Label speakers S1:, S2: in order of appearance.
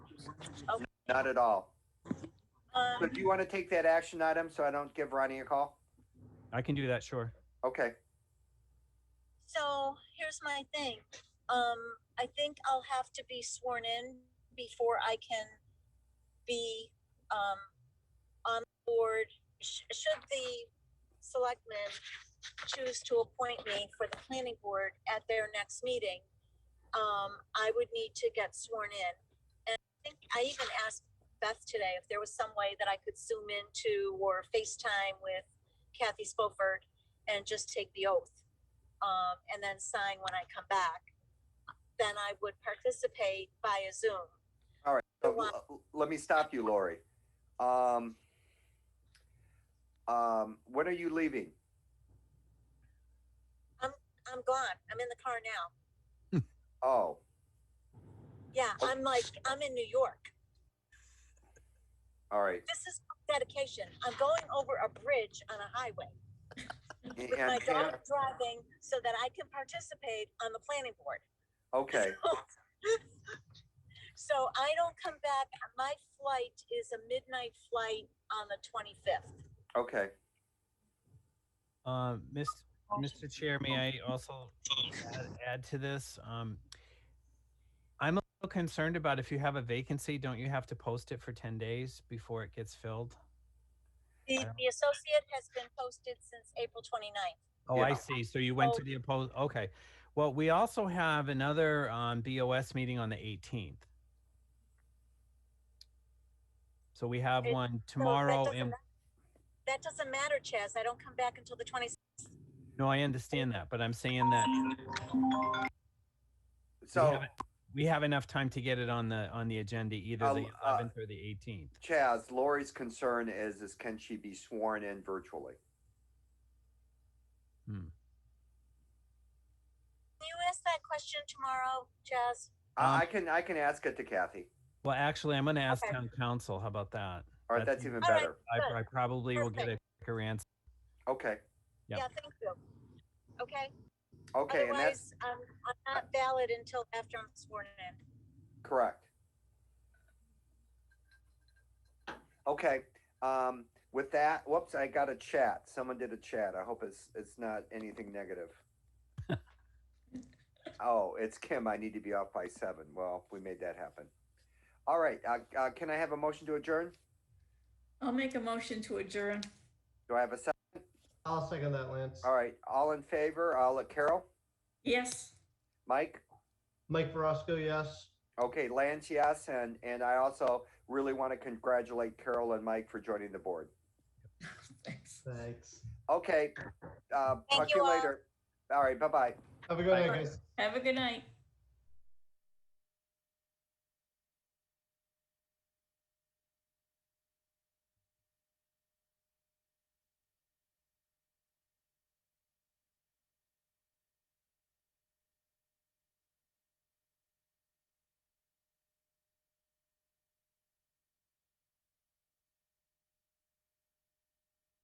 S1: Not at all. So
S2: Um,
S1: do you want to take that action item so I don't give Ronnie a call?
S3: I can do that, sure.
S1: Okay,
S2: so here's my thing. Um, I think I'll have to be sworn in before I can be, um, on the board. Sh- Should the selectmen choose to appoint me for the planning board at their next meeting, um, I would need to get sworn in. And I think I even asked Beth today if there was some way that I could zoom into or FaceTime with Kathy Spoford and just take the oath um, and then sign when I come back, then I would participate via Zoom.
S1: all right. So,
S2: Go on.
S1: l- Let me stop you, Lori. Um, um, when are you leaving?
S2: I'm gone. I'm in the car now.
S1: Oh,
S2: Yeah, I'm like, I'm in New York.
S1: all right.
S2: This is dedication. I'm going over a bridge on a highway
S1: And
S2: with my
S1: Pam,
S2: daughter driving so that I can participate on the planning board.
S1: okay,
S2: So I don't come back. My flight is a midnight flight on the 25th.
S1: okay.
S3: Um, Miss, Mr. Chair, may I also add, add to this? Um, I'm a little concerned about if you have a vacancy, don't you have to post it for ten days before it gets filled?
S2: The,
S3: Wow.
S2: the associate has been posted since April 29th.
S3: Oh, I
S1: Yeah.
S3: see. So you went
S2: So-
S3: to the opposed, okay. Well, we also have another, um, BOS meeting on the eighteenth. So we have
S2: It-
S3: one
S2: So that
S3: tomorrow
S2: doesn't
S3: and,
S2: ma- That doesn't matter, Chaz. I don't come back until the twenty.
S3: no, I understand that, but I'm saying that
S1: So,
S3: haven't- we have enough time to get it on the, on the agenda, either the
S1: I'll, uh,
S3: eleventh or the eighteenth.
S1: Chaz, Lori's concern is, is can she be sworn in virtually?
S2: Can you ask that question tomorrow, Chaz?
S1: I,
S3: Um,
S1: I can, I can ask it to Kathy.
S3: Well, actually, I'm gonna ask
S2: Okay.
S3: town council. How about that?
S1: All right,
S3: That's-
S1: that's even
S2: All right.
S1: better.
S3: I,
S2: Good.
S3: I probably will get a quicker answer.
S1: Okay,
S3: Yep.
S2: Yeah, thank you. Okay,
S1: okay, and that's
S2: otherwise, um, I'm not valid until after I'm sworn in.
S1: correct. Okay, um, with that, whoops, I got a chat. Someone did a chat. I hope it's, it's not anything negative. Oh, it's Kim. I need to be off by seven. Well, we made that happen. All right, uh, uh, can I have a motion to adjourn?
S4: I'll make a motion to adjourn.
S1: Do I have a second?
S5: I'll second that, Lance.
S1: All right, all in favor? I'll let Carol,
S4: Yes.
S1: Mike?
S5: Mike Verosco, yes.
S1: Okay, Lance, yes, and, and I also really want to congratulate Carol and Mike for joining the board.
S4: Thanks.
S5: Thanks.
S1: Okay, uh, talk
S2: Thank
S1: to you
S2: you all.
S1: later. All right, bye-bye.
S5: Have a good night,
S4: Bye.
S5: guys.
S4: Have a good night.